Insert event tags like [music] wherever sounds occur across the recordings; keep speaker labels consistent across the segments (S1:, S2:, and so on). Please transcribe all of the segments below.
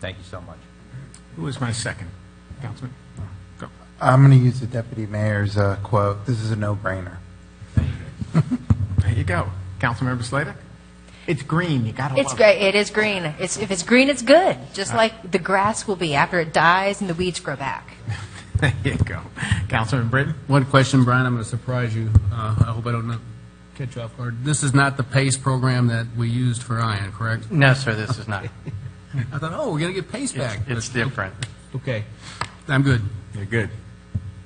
S1: Thank you so much.
S2: Who was my second, Councilman? Go.
S3: I'm going to use the deputy mayor's uh, quote. This is a no-brainer.
S2: There you go. Councilmember Slater? It's green, you gotta love it.
S4: It's great. It is green. It's, if it's green, it's good. Just like the grass will be after it dies and the weeds grow back.
S2: [laughs] There you go. Councilman Britton?
S5: One question, Brian, I'm going to surprise you. Uh, I hope I don't not catch you off guard. This is not the PACE program that we used for Ion, correct?
S6: No, sir, this [laughs] is not.
S5: I thought, oh, we're going to get PACE
S6: It's
S5: back.
S6: it's different.
S5: Okay, I'm good.
S2: You're good.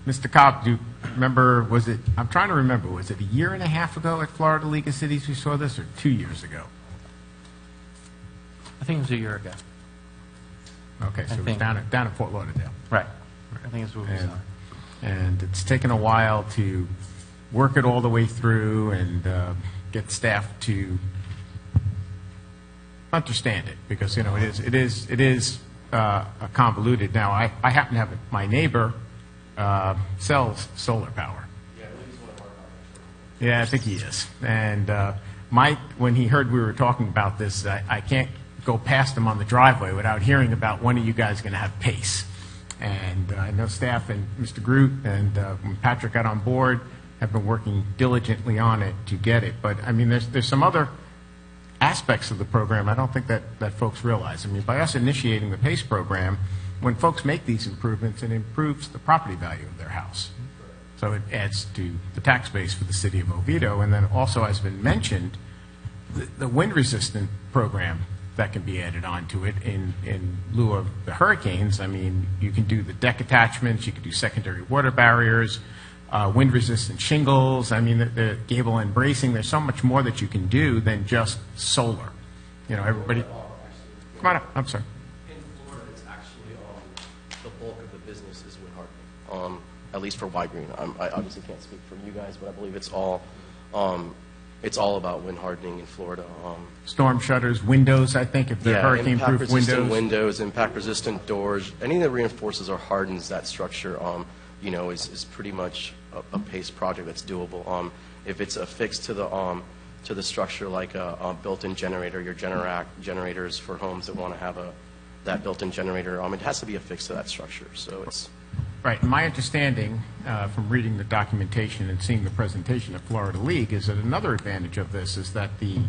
S2: Mr. Cobb, do you remember, was it, I'm trying to remember, was it a year and a half ago at Florida League of Cities we saw this, or two years ago?
S6: I think it was a year ago.
S2: Okay, so it was
S6: think-
S2: down at, down at Fort Lauderdale.
S6: Right. I think it's what we
S2: And,
S6: saw.
S2: and it's taken a while to work it all the way through and uh, get staff to understand it, because, you know, it is, it is, it is uh, convoluted. Now, I, I happen to have, my neighbor uh, sells solar power. Yeah, I think he is. And uh, Mike, when he heard we were talking about this, I, I can't go past him on the driveway without hearing about when are you guys going to have pace. And uh, I know staff and Mr. Groot and uh, when Patrick got on board have been working diligently on it to get it. But I mean, there's there's some other aspects of the program I don't think that, that folks realize. I mean, by us initiating the PACE program, when folks make these improvements, it improves the property value of their house. So it adds to the tax base for the city of Oviedo. And then also, as been mentioned, the, the wind resistant program that can be added onto it in, in lieu of the hurricanes. I mean, you can do the deck attachments, you can do secondary water barriers, uh, wind resistant shingles. I mean, the, the gable end bracing. There's so much more that you can do than just solar. You know, everybody. Come on up. I'm sorry.
S7: In Florida, it's actually, um, the bulk of the business is wind hardening, um, at least for Y-Green. I'm- I obviously can't speak for you guys, but I believe it's all, um, it's all about wind hardening in Florida. um,
S2: Storm shutters, windows. I think if they're
S7: yeah,
S2: hurricane proof
S7: impact-resistant
S2: windows.
S7: windows, impact-resistant doors, anything that reinforces or hardens that structure, um, you know, is, is pretty much a, a PACE project that's doable. Um, if it's affixed to the, um, to the structure like a, a built-in generator, your generac, generators for homes that want to have a, that built-in generator, um, it has to be affixed to that structure, so it's,
S2: Right. My understanding uh, from reading the documentation and seeing the presentation at Florida League is that another advantage of this is that the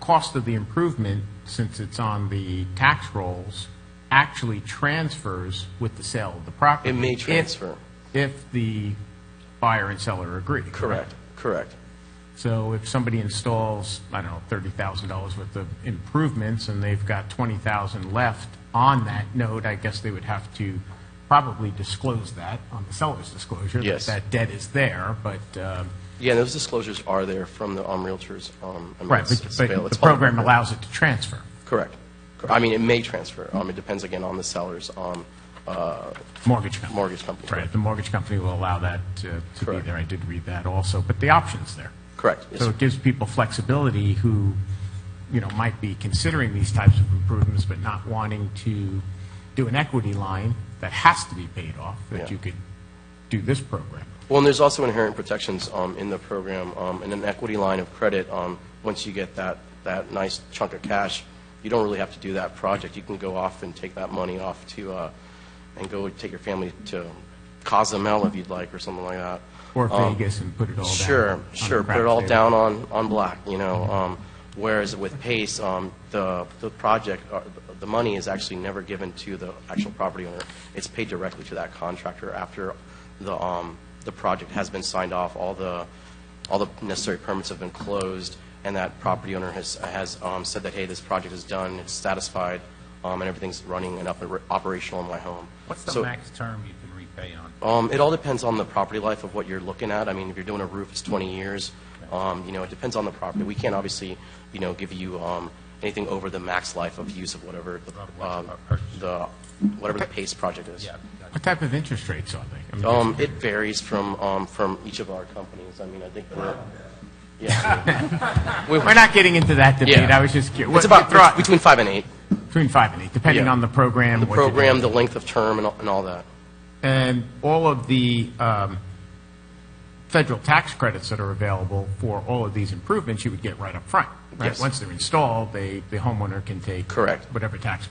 S2: cost of the improvement, since it's on the tax rolls, actually transfers with the sale of the property.
S7: It may
S2: if-
S7: transfer.
S2: If the buyer and seller agree.
S7: correct, correct.
S2: So if somebody installs, I don't know, thirty thousand dollars worth of improvements, and they've got twenty thousand left on that note, I guess they would have to probably disclose that on the seller's disclosure. that
S7: Yes.
S2: That debt is there, but, um,
S7: Yeah, and those disclosures are there from the, um, realtors, um, I mean,
S2: right,
S7: it's-
S2: but
S7: it's
S2: but
S7: avail-
S2: the
S7: it's all-
S2: program allows it to transfer.
S7: Correct. I mean, it may transfer, um, it depends again on the seller's, um, uh,
S2: Mortgage company.
S7: Mortgage company,
S2: Right,
S7: correct.
S2: the mortgage company will allow that to to be
S7: Correct.
S2: there. I did read that also, but the option's there.
S7: Correct. Yes,
S2: So
S7: sir.
S2: it gives people flexibility who, you know, might be considering these types of improvements but not wanting to do an equity line that has to be paid off, that
S7: Yeah.
S2: you could do this program.
S7: Well, and there's also inherent protections um, in the program, um, and an equity line of credit, um, once you get that, that nice chunk of cash, you don't really have to do that project. You can go off and take that money off to, uh, and go take your family to Cozumel if you'd like, or something like that.
S2: Or
S7: Um,
S2: Vegas and put it all down.
S7: Sure,
S2: on the
S7: sure, put
S2: craps
S7: it all
S2: table.
S7: down on, on black, you know, um, whereas with PACE, um, the, the project, uh, the money is actually never given to the actual property owner. It's paid directly to that contractor after the, um, the project has been signed off, all the, all the necessary permits have been closed, and that property owner has, has, um, said that, hey, this project is done, it's satisfied, um, and everything's running and up, operational in my home.
S1: What's the
S7: So-
S1: max term you can repay on?
S7: um, It all depends on the property life of what you're looking at. I mean, if you're doing a roof, it's 20 years. Um, You know, it depends on the property. We can't obviously, you know, give you um, anything over the max life of use of whatever, the, um, the, whatever the PACE project is.
S1: Yeah,
S2: What type of interest rates are they? I mean,
S7: Um, It varies from, um, from each of our companies. I mean, I think we're, yeah,
S2: We're not getting into that debate,
S7: Yeah.
S2: I was just curious.
S7: it's about between five and eight.
S2: Between five and eight, depending
S7: Yeah.
S2: on the program.
S7: The
S2: what you're doing.
S7: program, the length of term, and all- and all that.
S2: And all of the um, federal tax credits that are available for all of these improvements, you would get right up front, right?
S7: Yes.
S2: Once they're installed, they, the homeowner can take.
S7: Correct.
S2: Whatever tax